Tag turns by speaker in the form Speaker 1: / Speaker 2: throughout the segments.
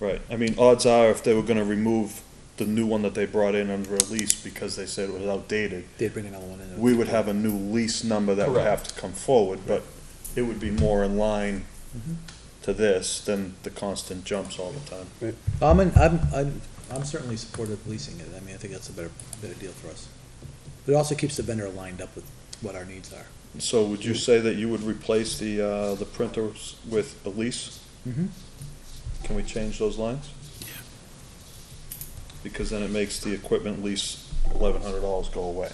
Speaker 1: Right, I mean, odds are if they were gonna remove the new one that they brought in under a lease because they said it was outdated,
Speaker 2: They'd bring another one in.
Speaker 1: we would have a new lease number that would have to come forward, but it would be more in line
Speaker 2: Mm-hmm.
Speaker 1: to this than the constant jumps all the time.
Speaker 2: I'm, in- I'm, I'm, I'm certainly supportive of leasing it. I mean, I think that's a better, better deal for us. But it also keeps the vendor aligned up with what our needs are.
Speaker 1: So would you say that you would replace the, uh, the printers with a lease?
Speaker 2: Mhm.
Speaker 1: Can we change those lines? Because then it makes the equipment lease eleven hundred dollars go away.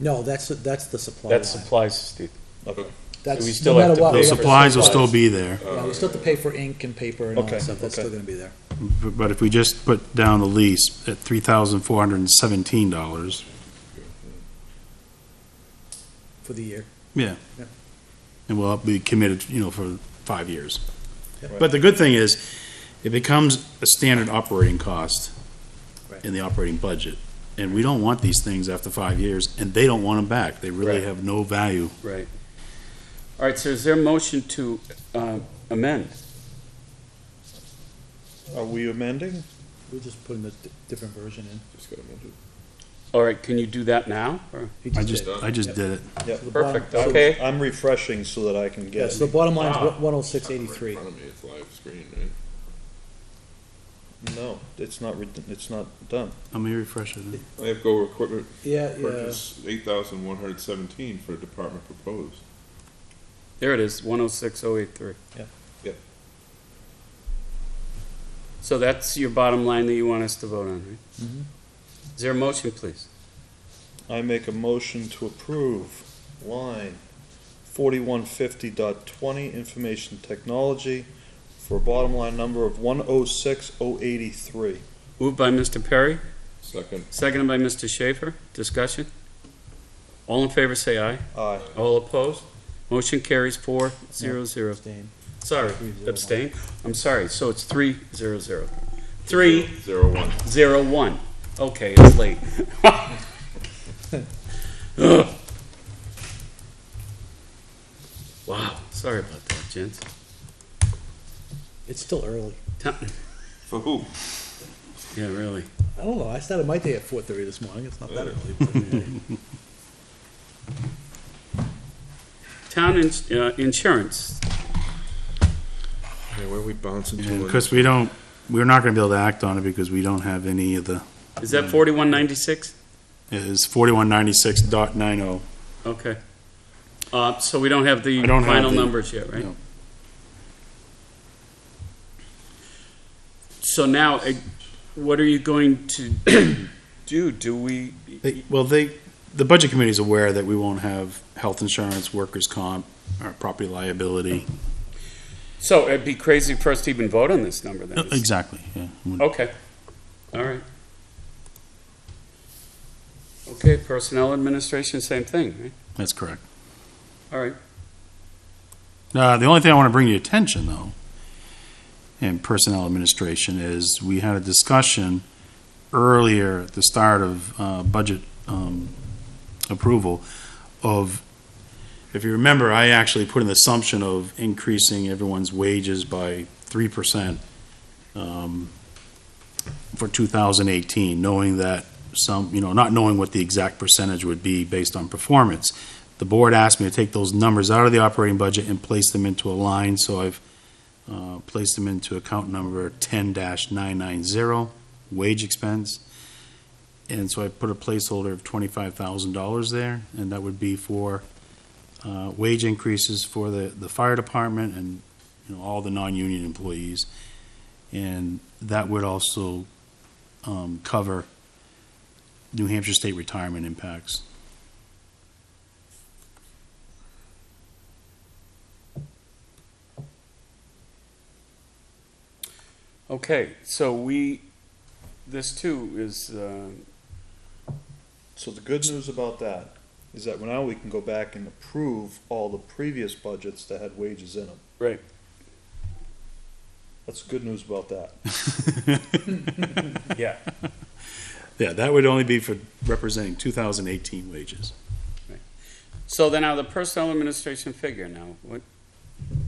Speaker 2: No, that's, that's the supply line.
Speaker 3: That supplies the,
Speaker 1: Okay.
Speaker 2: That's-
Speaker 3: we
Speaker 2: no
Speaker 3: still have
Speaker 2: matter
Speaker 3: to
Speaker 2: what,
Speaker 3: pay
Speaker 2: we
Speaker 4: The
Speaker 3: for Uh,
Speaker 2: have to-
Speaker 4: supplies will still be there,
Speaker 2: Yeah, we still have to pay for ink and paper and all that
Speaker 1: Okay,
Speaker 2: stuff. That's
Speaker 1: okay.
Speaker 2: still gonna be there.
Speaker 4: but if we just put down the lease at three thousand four hundred and seventeen dollars,
Speaker 2: for the year.
Speaker 4: yeah.
Speaker 2: Yeah.
Speaker 4: And we'll be committed, you know, for five years.
Speaker 2: Yeah.
Speaker 4: But the good thing is, it becomes a standard operating cost
Speaker 2: Right.
Speaker 4: in the operating budget. And we don't want these things after five years, and they don't want them back. They really
Speaker 3: Right.
Speaker 4: have no value.
Speaker 3: right. All right, so is there a motion to uh, amend?
Speaker 1: Are we amending?
Speaker 2: We're just putting a di- different version in.
Speaker 3: All right, can you do that now? or-
Speaker 2: He
Speaker 4: I just,
Speaker 2: did.
Speaker 4: I just did it.
Speaker 1: Yep.
Speaker 2: So the bottom-
Speaker 3: Perfect,
Speaker 2: so-
Speaker 3: okay.
Speaker 1: I'm refreshing so that I can
Speaker 2: Yeah,
Speaker 1: get.
Speaker 2: so the bottom line's
Speaker 3: Ah.
Speaker 2: one oh six eighty-three.
Speaker 5: Right in front of me, it's live screen, right?
Speaker 1: No, it's not, re- it's not done.
Speaker 4: Let me refresh it.
Speaker 5: I have go equipment
Speaker 2: Yeah, yeah.
Speaker 5: purchase eight thousand one hundred seventeen for department proposed.
Speaker 3: There it is, 106083.
Speaker 1: Yeah.
Speaker 5: Yep.
Speaker 3: So that's your bottom line that you want us to vote on, right?
Speaker 2: Mhm.
Speaker 3: Is there a motion, please?
Speaker 1: I make a motion to approve line forty-one fifty dot twenty, information technology, for a bottom line number of one oh six oh eighty-three.
Speaker 3: Moved by Mr. Perry,
Speaker 5: Second,
Speaker 3: seconded by Mr. Schaefer. Discussion? All in favor, say aye.
Speaker 1: Aye.
Speaker 3: All opposed? Motion carries four zero zero.
Speaker 2: Abstain.
Speaker 3: Sorry,
Speaker 2: Three zero one.
Speaker 3: abstain. I'm sorry, so it's three zero zero. Three
Speaker 5: zero one.
Speaker 3: zero one. Okay, it's late. Ugh. Wow, sorry about that, gents.
Speaker 2: It's still early.
Speaker 5: For who?
Speaker 3: Yeah, really.
Speaker 2: I don't know, I started my day at four thirty this morning, it's not that early, but uh,
Speaker 3: Town ins- uh, insurance.
Speaker 5: Yeah, where are we bouncing
Speaker 4: And Chris, we don't, we're not gonna be able to act on it because we don't have any of the,
Speaker 3: Is that forty-one ninety-six?
Speaker 4: it is forty-one ninety-six dot nine oh.
Speaker 3: Okay. Uh, so we don't have the
Speaker 4: I don't have
Speaker 3: final
Speaker 4: the-
Speaker 3: numbers yet, right?
Speaker 4: no.
Speaker 3: So now, eh, what are you going to do? Do we?
Speaker 4: They- Well, they, the budget committee is aware that we won't have health insurance, workers' comp, or property liability.
Speaker 3: So it'd be crazy for us to even vote on this number then.
Speaker 4: Exactly, yeah.
Speaker 3: Okay, all right. Okay, personnel administration, same thing, right?
Speaker 4: That's correct.
Speaker 3: All right,
Speaker 4: Uh, the only thing I want to bring to your attention, though, in personnel administration is we had a discussion earlier at the start of uh, budget um, approval of, if you remember, I actually put an assumption of increasing everyone's wages by 3% um, for 2018, knowing that some, you know, not knowing what the exact percentage would be based on performance the board asked me to take those numbers out of the operating budget and place them into a line, so I've uh, placed them into account number ten nine nine zero, wage expense. And so I put a placeholder of twenty-five thousand dollars there, and that would be for uh, wage increases for the, the fire department and, you know, all the non-union employees. And that would also um, cover New Hampshire state retirement impacts.
Speaker 3: okay, so we, this too is, uh,
Speaker 1: So the good news about that is that now we can go back and approve all the previous budgets that had wages in them.
Speaker 3: Right.
Speaker 1: That's good news about that.
Speaker 3: yeah,
Speaker 4: Yeah, that would only be for representing 2018 wages.
Speaker 3: so then now the personnel administration figure now, what,